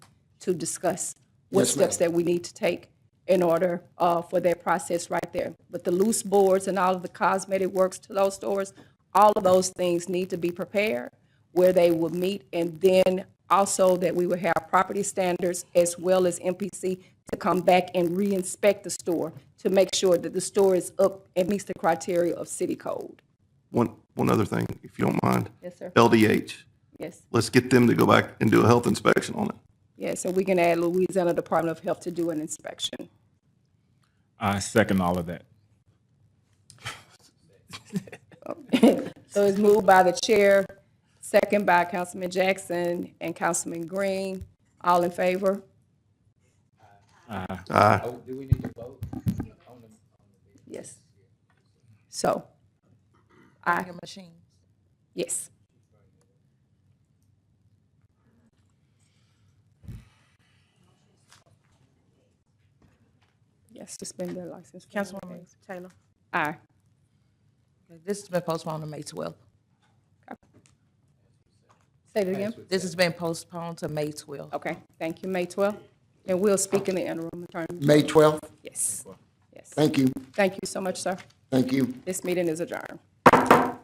to discuss what Yes, ma'am. steps that we need to take in order uh, for that process right there. But the loose boards and all of the cosmetic works to those stores, all of those things need to be prepared where they will meet. And then also that we will have property standards as well as MPC to come back and re-inspect the store to make sure that the store is up and meets the criteria of city code. One, one other thing, if you don't mind. Yes, sir. LDH, Yes, let's get them to go back and do a health inspection on it. yes, and we can add Louisiana Department of Health to do an inspection. I second all of that. So it's moved by the chair, second by Councilman Jackson and Councilman Green. All in favor? Aye. Yes. So, aye, your machines. yes. Yes, suspend their license. for ninety Councilwoman days. Taylor. Aye. This has been postponed to May twelfth. Say it again. This has been postponed to May twelfth. Okay, thank you, May 12th. And we'll speak in the interim, Attorney. May 12th. Yes, yes. Thank you. Thank you so much, sir. Thank you. This meeting is adjourned.